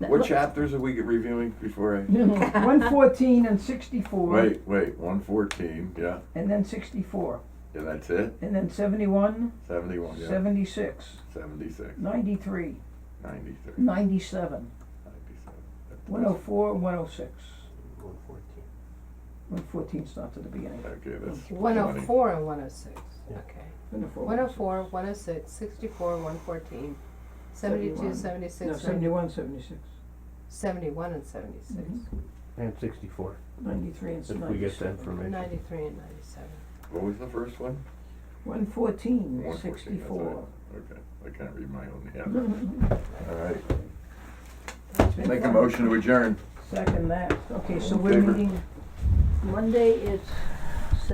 What chapters are we reviewing before I? One fourteen and sixty-four, Wait, wait, one fourteen, yeah, and then sixty-four, yeah, that's it, and then seventy-one, seventy-one, yeah, seventy-six, seventy-six, ninety-three, ninety-three, ninety-seven, ninety-seven. one oh four, one oh six. One fourteen. One fourteen starts at the beginning. Okay, that's One oh twenty. four and one oh six, Yeah. okay. 104, One oh four, one oh six, sixty-four, one fourteen, 71. seventy-two, No, seventy-six, seventy-one, seventy-six, seventy-one and seventy-six, And sixty-four, ninety-three and if ninety-seven. we get the information. ninety-three and ninety-seven. What was the first one? One fourteen, One fourteen, that's sixty-four. right. Okay, I can't read my own hand, all right, make a Fun. motion to adjourn. Second that, okay, so All in we're favor? meeting, Monday it's